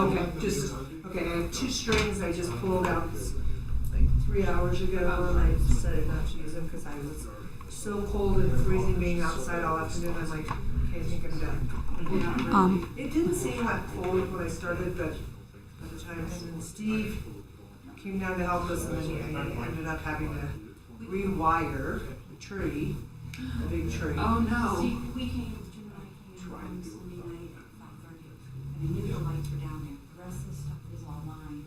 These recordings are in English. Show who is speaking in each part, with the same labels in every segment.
Speaker 1: Okay, just, okay, I have two strings I just pulled out like three hours ago and I decided not to use them because I was so cold and freezing being outside all afternoon. I'm like, okay, I think I'm done.
Speaker 2: Mm-hmm.
Speaker 3: Um.
Speaker 1: It didn't seem that cold when I started, but by the time him and Steve came down to help us and then he- I ended up having to rewire the tree, the big tree.
Speaker 2: Oh, no.
Speaker 4: See, we came, Jim and I came on Sunday night at five thirty, and I knew the lights were down there, the rest of the stuff is all mine.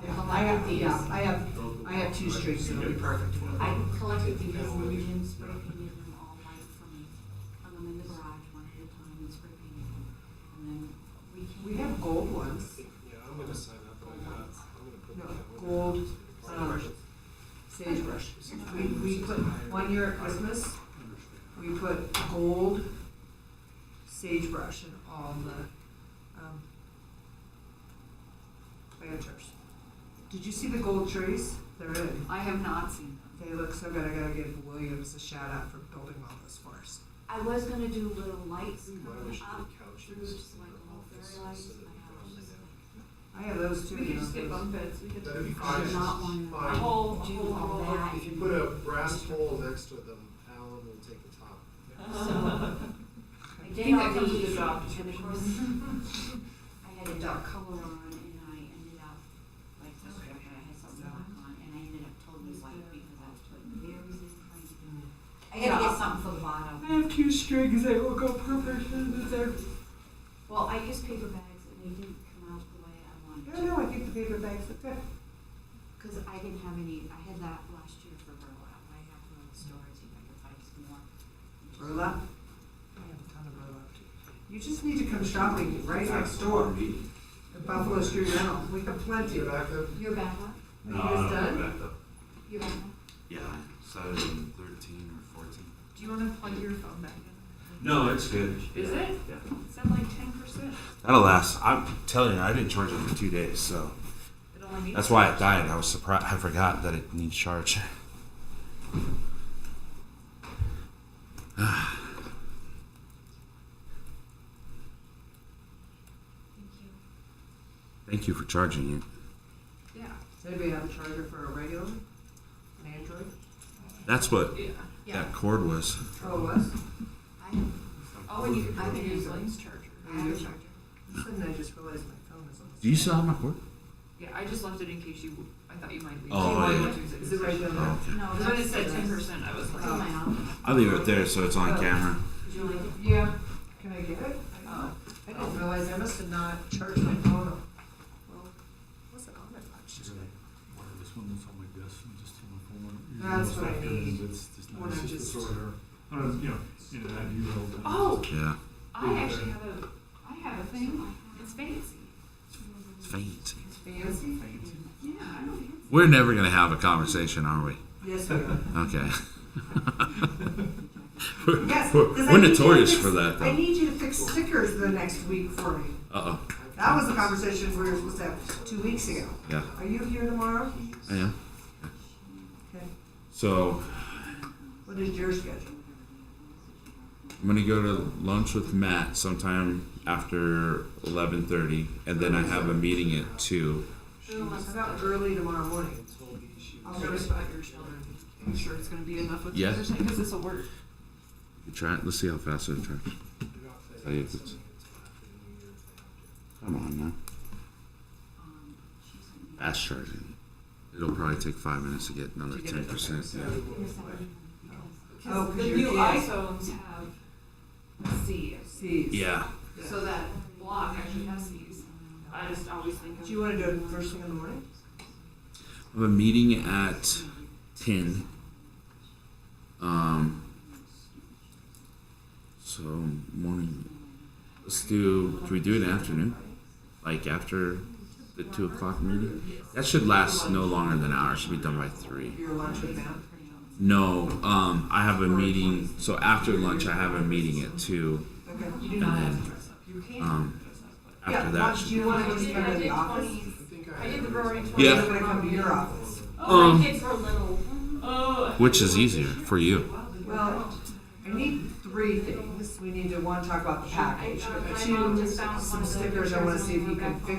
Speaker 1: Yeah, I have, yeah, I have, I have two strings that'll be perfect.
Speaker 4: I collected these and Jim spray painted them all white for me, hung them in the garage one at a time and spray painted them, and then we came.
Speaker 1: We have gold ones.
Speaker 5: Yeah, I'm gonna sign up on that. I'm gonna put
Speaker 1: No,
Speaker 5: that one.
Speaker 1: gold, um, sagebrush. We, we put, one year at Christmas, we put gold sagebrush in all the, um, planters. Did you see the gold trees? They're in.
Speaker 2: I have not seen
Speaker 1: They look so good. I gotta give Williams a shout out for building all this for us.
Speaker 4: I was gonna do little lights coming
Speaker 5: Wish
Speaker 4: up
Speaker 5: the couches
Speaker 4: through just
Speaker 5: in
Speaker 4: like
Speaker 5: the
Speaker 4: little
Speaker 5: office
Speaker 4: fairy lights,
Speaker 5: so that
Speaker 4: and
Speaker 1: I
Speaker 4: I was just like,
Speaker 5: it doesn't
Speaker 1: have those
Speaker 2: it.
Speaker 1: too.
Speaker 2: We could
Speaker 1: you know,
Speaker 2: just get
Speaker 1: those-
Speaker 2: bunk beds, we could.
Speaker 5: That'd be
Speaker 4: I did
Speaker 5: fine.
Speaker 4: not want
Speaker 5: Fine.
Speaker 4: to whole,
Speaker 2: Do
Speaker 4: do all
Speaker 2: all
Speaker 4: that.
Speaker 5: If you put a brass pole next to them, Alan will take the top.
Speaker 4: I
Speaker 2: I
Speaker 4: did
Speaker 2: think
Speaker 4: all
Speaker 2: that comes with
Speaker 4: these,
Speaker 2: the job
Speaker 4: and of
Speaker 2: description.
Speaker 4: course, I had a dark color on and I ended up like this,
Speaker 2: Okay.
Speaker 4: I had something black on and I ended up totally white because I was like very trying to do. Mm-hmm. I gotta
Speaker 2: Yeah.
Speaker 4: get something for the bottom.
Speaker 1: have two strings. They will go perfect in there.
Speaker 4: Well, I used paper bags and they didn't come out the way I
Speaker 1: No,
Speaker 4: wanted to.
Speaker 1: no, I think the paper bags look good.
Speaker 4: Cause I didn't have any, I had that last year for burlap, I have one in the store, see if I can find some more.
Speaker 1: Burlap? I have a ton of burlap too. You just need to come shopping right next door at Buffalo Street Rental. We have
Speaker 5: Do
Speaker 1: plenty.
Speaker 5: you
Speaker 1: Are
Speaker 5: back up?
Speaker 4: Your backup,
Speaker 1: you
Speaker 6: No,
Speaker 1: guys
Speaker 6: no,
Speaker 1: done?
Speaker 6: back up.
Speaker 4: your backup,
Speaker 6: Yeah, started in thirteen or fourteen.
Speaker 2: Do you wanna plug your phone back in?
Speaker 6: No, it's good.
Speaker 2: Is it?
Speaker 6: Yeah.
Speaker 2: It's at like ten percent.
Speaker 6: That'll last. I'm telling you, I didn't charge it for two days, so
Speaker 2: It only needs.
Speaker 6: that's why it died. I was surprised. I forgot that it needs charge.
Speaker 4: thank you.
Speaker 6: Thank you for charging it.
Speaker 2: Yeah,
Speaker 1: Anybody have a charger for a regular, an Android?
Speaker 6: That's what
Speaker 2: yeah.
Speaker 6: that cord was.
Speaker 1: Oh, it was?
Speaker 4: I have,
Speaker 2: Oh, and you can
Speaker 4: I
Speaker 2: plug
Speaker 4: can
Speaker 2: it
Speaker 4: use
Speaker 2: into
Speaker 4: it.
Speaker 2: Link's charger.
Speaker 4: I have a charger.
Speaker 1: Suddenly I just realized my phone is on. the
Speaker 6: Do you
Speaker 1: stand.
Speaker 6: still have my cord?
Speaker 2: Yeah, I just left it in case you, I thought you might be.
Speaker 6: Oh,
Speaker 2: you might
Speaker 6: yeah.
Speaker 2: want to use it. Is it right there?
Speaker 6: Oh, okay.
Speaker 4: No,
Speaker 2: Cause when it
Speaker 4: that's,
Speaker 2: said
Speaker 4: that's
Speaker 2: ten
Speaker 4: in
Speaker 2: percent, I was like,
Speaker 4: my
Speaker 2: oh,
Speaker 4: office.
Speaker 6: I'll leave it there so it's on camera.
Speaker 4: Would you like it?
Speaker 1: Yeah, can I get it? I I didn't realize, I must have not charged my phone. Well, it wasn't on it much today.
Speaker 7: This one that's on my desk, and just on my phone.
Speaker 1: That's what I
Speaker 7: It's not
Speaker 1: need.
Speaker 7: good, It's just
Speaker 1: When
Speaker 7: not,
Speaker 1: I
Speaker 7: it's
Speaker 1: just-
Speaker 7: just a sorter. I don't, you know, you know, I do all the.
Speaker 2: oh,
Speaker 6: Yeah.
Speaker 2: I actually have a, I have a thing. It's fancy.
Speaker 6: It's faint.
Speaker 1: It's fancy?
Speaker 7: Fancy.
Speaker 2: Yeah, I don't fancy.
Speaker 6: We're never gonna have a conversation, are we?
Speaker 1: Yes, we are.
Speaker 6: Okay.
Speaker 1: Yes,
Speaker 6: we're
Speaker 1: 'cause I
Speaker 6: we're
Speaker 1: need you to
Speaker 6: notorious
Speaker 1: fix-
Speaker 6: for that,
Speaker 1: I
Speaker 6: though.
Speaker 1: need you to fix stickers the next week for me.
Speaker 6: Uh oh.
Speaker 1: That was the conversation we were supposed to have two weeks ago.
Speaker 6: Yeah.
Speaker 1: Are you here tomorrow?
Speaker 6: Yeah.
Speaker 1: Okay.
Speaker 6: So
Speaker 1: What is your schedule?
Speaker 6: I'm gonna go to lunch with Matt sometime after eleven thirty, and then I have a meeting at two.
Speaker 2: Oh,
Speaker 1: How about early tomorrow morning? I'll
Speaker 2: I'm nervous about your children. I'm sure it's gonna be enough with the
Speaker 6: Yeah.
Speaker 2: other thing, cause this'll work.
Speaker 6: You Try it. Let's see how fast it charges. Tell you if it's- Come on now,
Speaker 4: Um, she's gonna be-
Speaker 6: fast charging. It'll probably take five minutes to get another
Speaker 2: To get it
Speaker 6: ten percent.
Speaker 4: Give us that one, because-
Speaker 1: Oh,
Speaker 2: Cause
Speaker 1: 'cause
Speaker 2: the
Speaker 1: your
Speaker 2: new
Speaker 1: kids-
Speaker 2: iPhones have C's,
Speaker 1: C's.
Speaker 6: Yeah.
Speaker 2: so that block actually has C's. I just always think of.
Speaker 1: Do you wanna do it first thing in the morning?
Speaker 6: I have a meeting at ten. Um. So morning. Let's do. Can we do it in the afternoon? Like after the two o'clock meeting? That should last no longer than an hour. It should be done by three.
Speaker 1: Your lunch with Matt?
Speaker 6: No. Um. I have a meeting. So after lunch, I have a meeting at two.
Speaker 1: Okay.
Speaker 2: You do
Speaker 6: And
Speaker 2: not have
Speaker 6: then,
Speaker 2: to dress up. You can
Speaker 6: um,
Speaker 2: dress up, but.
Speaker 6: After
Speaker 1: Yeah,
Speaker 6: that.
Speaker 1: lunch, do
Speaker 6: should be-
Speaker 1: you wanna go to
Speaker 4: I
Speaker 1: the
Speaker 4: did
Speaker 1: office?
Speaker 4: twenties.
Speaker 5: I think
Speaker 2: I
Speaker 5: I.
Speaker 2: did the roaring
Speaker 1: Or
Speaker 2: twenty.
Speaker 6: Yeah.
Speaker 1: You're gonna come to your office?
Speaker 4: Oh,
Speaker 6: Um,
Speaker 4: my kids were little.
Speaker 2: Oh.
Speaker 6: Which is easier for you?
Speaker 1: Well, I need three things. We need to, one, talk about the package.
Speaker 4: I- I- my
Speaker 1: Two,
Speaker 2: uh,
Speaker 4: mom just found one
Speaker 1: some
Speaker 4: of those
Speaker 1: stickers I wanna
Speaker 4: pictures
Speaker 1: see if you
Speaker 4: on her
Speaker 1: can
Speaker 4: back
Speaker 1: fix